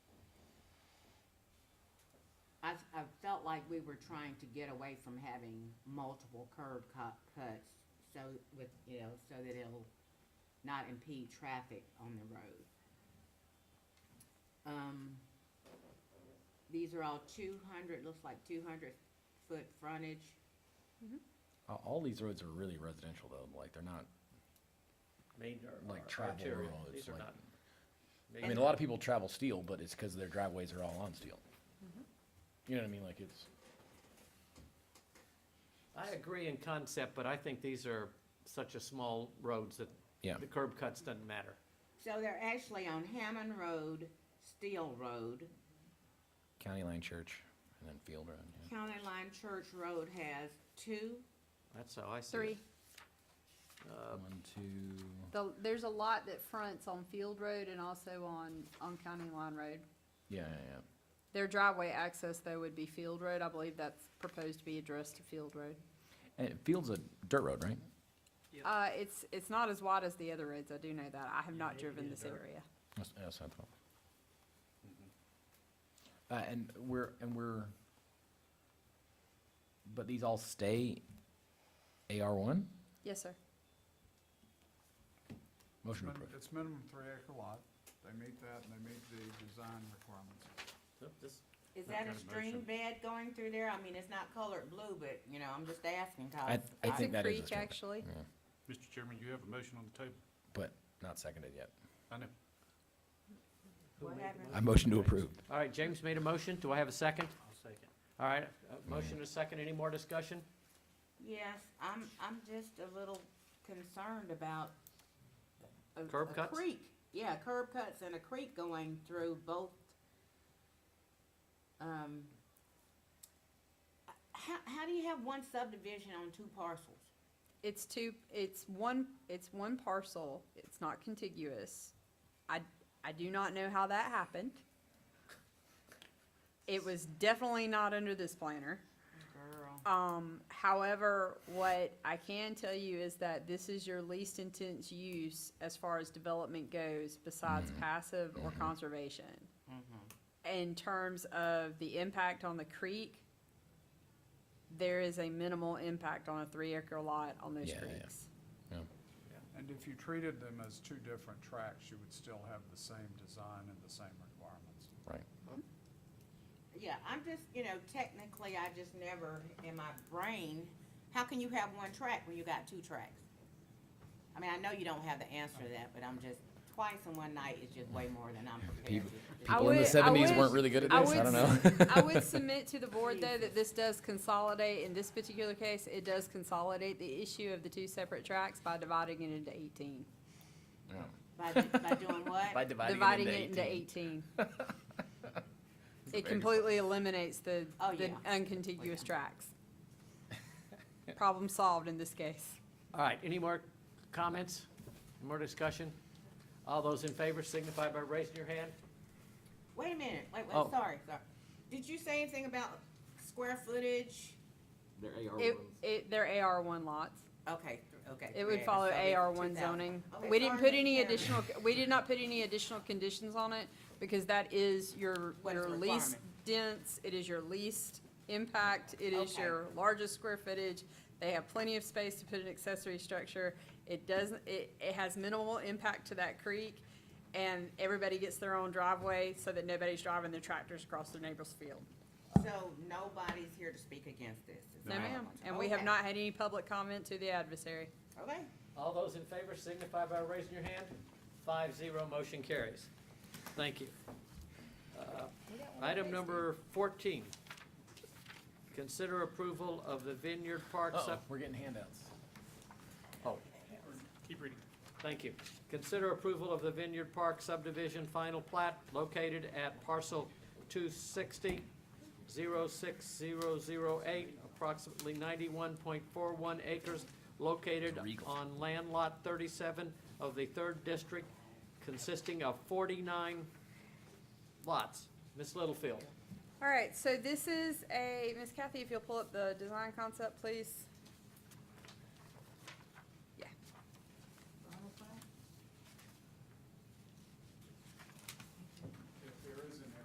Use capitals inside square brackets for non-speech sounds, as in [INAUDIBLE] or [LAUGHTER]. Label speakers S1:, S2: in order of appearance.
S1: I, I felt like we were trying to get away from having multiple curb cut, cuts, so with, you know, so that it'll not impede traffic on the road. Um, these are all two hundred, looks like two hundred foot frontage.
S2: Uh, All these roads are really residential though, like they're not,
S3: Main or-
S2: Like
S3: or
S2: travel
S3: arterial.
S2: roads,
S3: These are
S2: like-
S3: not.
S2: I mean, a lot of people travel steel, but it's because their driveways are all on steel. You know what I mean, like it's,
S3: I agree in concept, but I think these are such a small roads that
S2: Yeah.
S3: the curb cuts doesn't matter.
S1: So they're actually on Hammond Road, Steel Road,
S2: County Line Church and then Field Road, yeah.
S1: County Line Church Road has two,
S3: That's how I see it. Uh,
S4: Three.
S2: One, two,
S4: The, there's a lot that fronts on Field Road and also on, on County Line Road.
S2: yeah, yeah, yeah.
S4: Their driveway access though would be Field Road. I believe that's proposed to be addressed to Field Road.
S2: And Field's a dirt road, right?
S4: Uh, it's, it's not as wide as the other roads. I do know that. I have not
S3: maybe
S4: driven
S3: the
S4: this
S3: dirt.
S4: area.
S2: That's, that's what I thought. Uh, and we're, and we're, but these all stay AR one?
S4: Yes, sir.
S2: Motion
S5: Min-
S2: approved.
S5: It's minimum three acre lot. They meet that and they meet the design requirements.
S3: So oh, this-
S1: Is
S3: That
S1: that a
S3: kind of
S1: stream
S3: motion.
S1: bed going through there? I mean, it's not colored blue, but, you know, I'm just asking,
S2: I,
S1: cause.
S2: I
S4: It's a
S2: think that is.
S4: creek,
S2: straight-
S4: actually.
S2: yeah,
S6: Mr. Chairman, you have a motion on the table.
S2: But not seconded yet.
S6: I know.
S3: who
S1: What
S3: made the
S1: happened?
S3: motion?
S2: I motion to approve.
S3: All right, James made a motion. Do I have a second? I'll second. All right, uh, motion and a second. Any more discussion?
S1: Yes, I'm, I'm just a little concerned about. a-
S3: Curb
S1: a
S3: cuts?
S1: Creek, yeah, curb cuts and a creek going through both. Um, how, how do you have one subdivision on two parcels?
S4: It's two, it's one, it's one parcel. It's not contiguous. I, I do not know how that happened. It was definitely not under this planner.
S1: Girl.
S4: Um, however, what I can tell you is that this is your least intense use as far as development goes besides passive or conservation. In terms of the impact on the creek, there is a minimal impact on a three acre lot on those
S2: Yeah, yeah.
S4: [LAUGHS] creeks.
S2: Yeah.
S5: And if you treated them as two different tracks, you would still have the same design and the same requirements.
S2: Right.
S1: Yeah, I'm just, you know, technically, I just never, in my brain, how can you have one track when you got two tracks? I mean, I know you don't have the answer to that, but I'm just, twice in one night is just way more than I'm prepared to.
S4: I
S2: People in the
S4: would- I
S2: seventies
S4: would-
S2: weren't really good at
S4: I
S2: this, I
S4: would
S2: don't know.
S4: [LAUGHS] I
S2: [LAUGHS]
S4: would submit to the board though that this does consolidate, in this particular case, it does consolidate the issue of the two separate tracks by dividing it into eighteen.
S2: Yeah.
S1: By,
S2: [LAUGHS]
S1: by doing what?
S4: dividing it into 18. [LAUGHS] It completely eliminates the,
S1: Oh,
S4: the
S1: yeah.
S4: uncontiguous
S1: Yeah.
S4: tracks. Problem solved in this case.
S3: All right, any more comments? Any More discussion? All those in favor signify by raising your hand.
S1: Wait a minute, wait, wait,
S3: Oh.
S1: sorry, sorry. Did you say anything about square footage?
S4: It, it, they're AR1 lots.
S1: Okay, okay.
S4: It would
S1: yeah,
S4: follow
S1: so they-
S4: AR1
S1: 2,000.
S4: zoning.
S1: Okay,
S4: We didn't
S1: sorry,
S4: put any
S1: Mr. Chairman.
S4: additional, we did not put any additional conditions on it because that is your,
S1: What is
S4: your
S1: the
S4: least
S1: requirement?
S4: dense, it is your least impact, it is
S1: Okay.
S4: your largest square footage. They have plenty of space to put an accessory structure. It doesn't, it, it has minimal impact to that creek. And everybody gets their own driveway so that nobody's driving their tractors across their neighbor's field.
S1: So nobody's here to speak against this? is
S4: No
S1: what I
S4: ma'am,
S1: want to-
S4: and we have
S1: okay,
S4: not had any public comment to the adversary.
S1: Okay.
S3: All those in favor signify by raising your hand. Five zero, motion carries. Thank you. Uh, Item number fourteen. Consider approval of the Vineyard Park sub.
S2: We're getting handouts.
S3: Oh,
S6: Keep reading.
S3: thank you. Consider approval of the Vineyard Park subdivision final plat located at parcel 260 06008, approximately ninety-one point four one acres, located
S2: It's regal.
S3: on land lot thirty-seven of the third district, consisting of forty-nine lots. Ms. Littlefield,
S4: All right, so this is a, Miss Kathy, if you'll pull up the design concept, please.